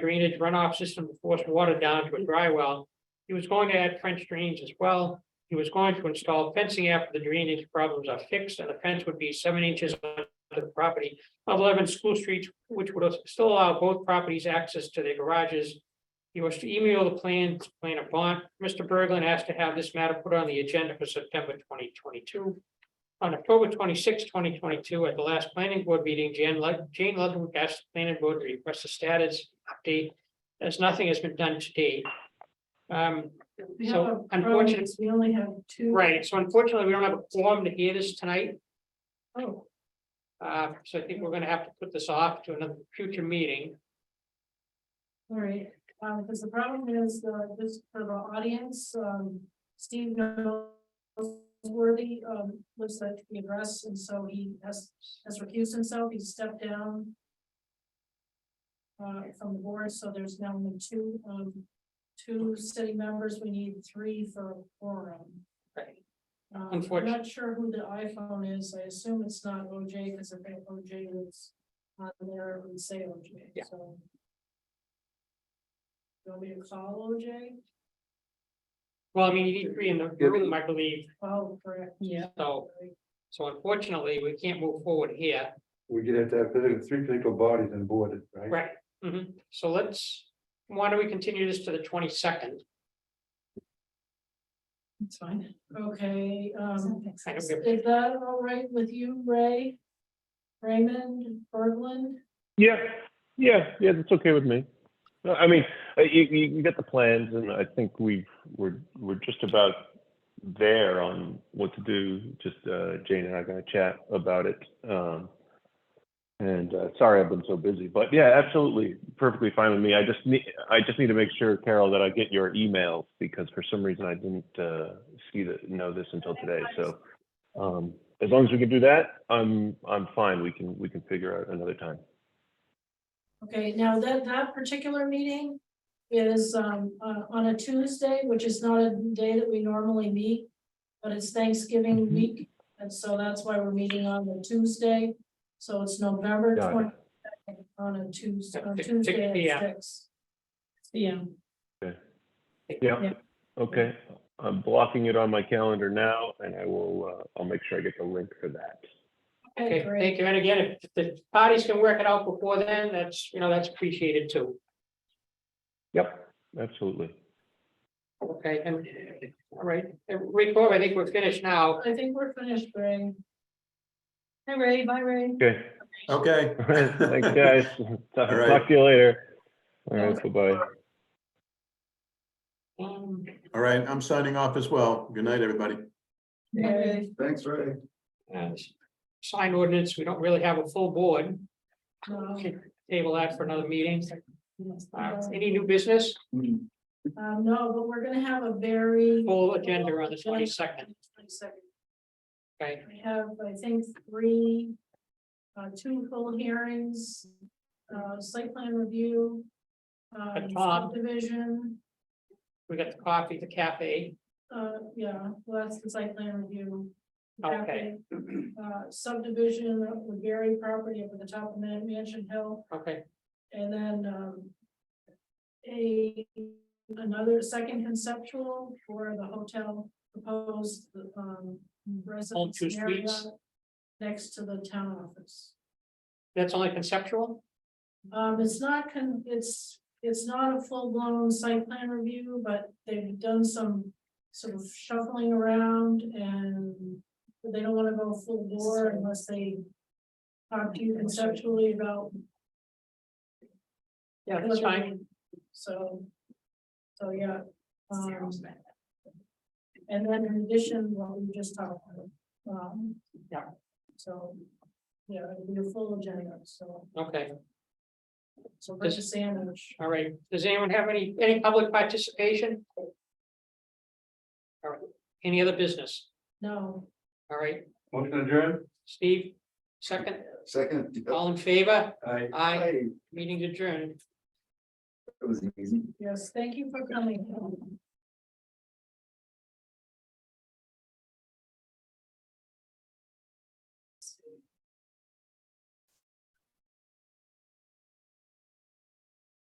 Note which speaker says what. Speaker 1: drainage runoff system to force water down to a dry well. He was going to add French drains as well. He was going to install fencing after the drainage problems are fixed and the fence would be seven inches on the property of eleven school streets, which would still allow both properties access to their garages. He was to email the plans, plan of bond. Mr. Berglund asked to have this matter put on the agenda for September twenty twenty-two. On October 26, twenty twenty-two, at the last planning board meeting, Jan Lud- Jane Ludwig asked the planning board to request a status update. As nothing has been done to date. Um,
Speaker 2: We have
Speaker 1: So,
Speaker 2: a
Speaker 1: unfortunate-
Speaker 2: problem is We only have two.
Speaker 1: right, so unfortunately, we don't have a forum to hear this tonight.
Speaker 2: Oh,
Speaker 1: Uh, so I think we're gonna have to put this off to another future meeting.
Speaker 2: all right, um, because the problem is, uh, this for the audience, um, Steve Noseworthy, um, looks like the address, and so he has, has recused himself, he stepped down. Uh, from the board, so there's now only two, um, two city members, we need three for a forum.
Speaker 1: Right.
Speaker 2: Um, I'm
Speaker 1: Unfortunate-
Speaker 2: not sure who the iPhone is, I assume it's not OJ, because if it- OJ was on there, it would say OJ,
Speaker 1: Yeah.
Speaker 2: so. You Want me to call OJ?
Speaker 1: Well, I mean, you need three in the room, I believe,
Speaker 2: Oh, correct.
Speaker 3: Yeah.
Speaker 1: so, so unfortunately, we can't move forward here.
Speaker 4: We're gonna have to have political- three political bodies on board, right?
Speaker 1: Right, mhm. so let's, why don't we continue this to the twenty-second?
Speaker 3: It's fine.
Speaker 2: Okay, um,
Speaker 1: I don't
Speaker 2: is
Speaker 1: give-
Speaker 2: is that all right with you, Ray? Raymond Berglund?
Speaker 5: Yeah, yeah, yeah, that's okay with me. No, I mean, uh, you, you you get the plans and I think we've, we're, we're just about there on what to do. Just, uh, Jane and I are gonna chat about it. Um, and, uh, sorry I've been so busy, but yeah, absolutely, perfectly fine with me. I just need, I just need to make sure, Carol, that I get your emails because for some reason I didn't, uh, see the, know this until today, so. Um, as long as we can do that, I'm, I'm fine. We can, we can figure out another time.
Speaker 2: Okay, now that, that particular meeting is um, uh, on a Tuesday, which is not a day that we normally meet. But it's Thanksgiving
Speaker 1: Mm-hmm.
Speaker 5: Mhm.
Speaker 2: week, and so that's why we're meeting on the Tuesday. So it's November
Speaker 5: Got it.
Speaker 2: twenty on a Tuesday, on
Speaker 1: Six- six
Speaker 2: Tuesday
Speaker 1: p.m.
Speaker 2: at six.
Speaker 3: Yeah,
Speaker 5: Yeah,
Speaker 3: Yeah.
Speaker 5: okay. I'm blocking it on my calendar now and I will, uh, I'll make sure I get the link for that.
Speaker 2: Okay,
Speaker 1: Okay,
Speaker 2: great.
Speaker 1: thank you, and again, if the parties can work it out before then, that's, you know, that's appreciated too.
Speaker 5: Yep, absolutely.
Speaker 1: Okay, and, all right, And Rick, Bob, I think we're finished now.
Speaker 2: I think we're finished, Ray. Hi, Ray. Bye, Ray.
Speaker 5: Okay.
Speaker 4: Okay.
Speaker 5: Thanks, guys. Talk
Speaker 4: All right.
Speaker 5: talk to you later. All right, bye-bye.
Speaker 1: Um,
Speaker 4: All right, I'm signing off as well. Good night, everybody.
Speaker 2: Okay.
Speaker 4: Thanks, Ray.
Speaker 1: uh, Sign ordinance, we don't really have a full board,
Speaker 2: No,
Speaker 1: table that for another meeting. Uh, Any new business,
Speaker 2: Um, no, but we're gonna have a very.
Speaker 1: full agenda on the twenty-second,
Speaker 2: Twenty-second.
Speaker 1: okay?
Speaker 2: We have, I think, three, uh, two full hearings, uh, site plan review.
Speaker 1: A
Speaker 2: Um,
Speaker 1: top.
Speaker 2: subdivision,
Speaker 1: We got the coffee, the cafe,
Speaker 2: uh, yeah, well, that's the site plan review.
Speaker 1: Okay.
Speaker 2: Uh, subdivision of the Gary property up at the top of Man- Mansion Hill,
Speaker 1: okay,
Speaker 2: and then, um. A, another second conceptual for the hotel proposed, um,
Speaker 1: All two
Speaker 2: residence area.
Speaker 1: suites.
Speaker 2: Next to the town office.
Speaker 1: that's only conceptual,
Speaker 2: Um, it's not con, it's, it's not a full-blown site plan review, but they've done some sort of shuffling around and they don't wanna go full bore unless they talk to you conceptually about.
Speaker 1: yeah, that's fine,
Speaker 2: So, so, yeah. um, And then in addition, what we just talked about, um.
Speaker 1: Yeah.
Speaker 2: So, yeah, it'll be a full agenda, so,
Speaker 1: okay.
Speaker 2: so we're just sandwich.
Speaker 1: All right, does anyone have any, any public participation? All right, any other business?
Speaker 2: No,
Speaker 1: All right,
Speaker 4: Motion adjourned?
Speaker 1: Steve, second,
Speaker 6: Second.
Speaker 1: all in favor,
Speaker 4: Aye.
Speaker 1: Aye. meeting adjourned.
Speaker 6: It was easy.
Speaker 2: yes, thank you for coming.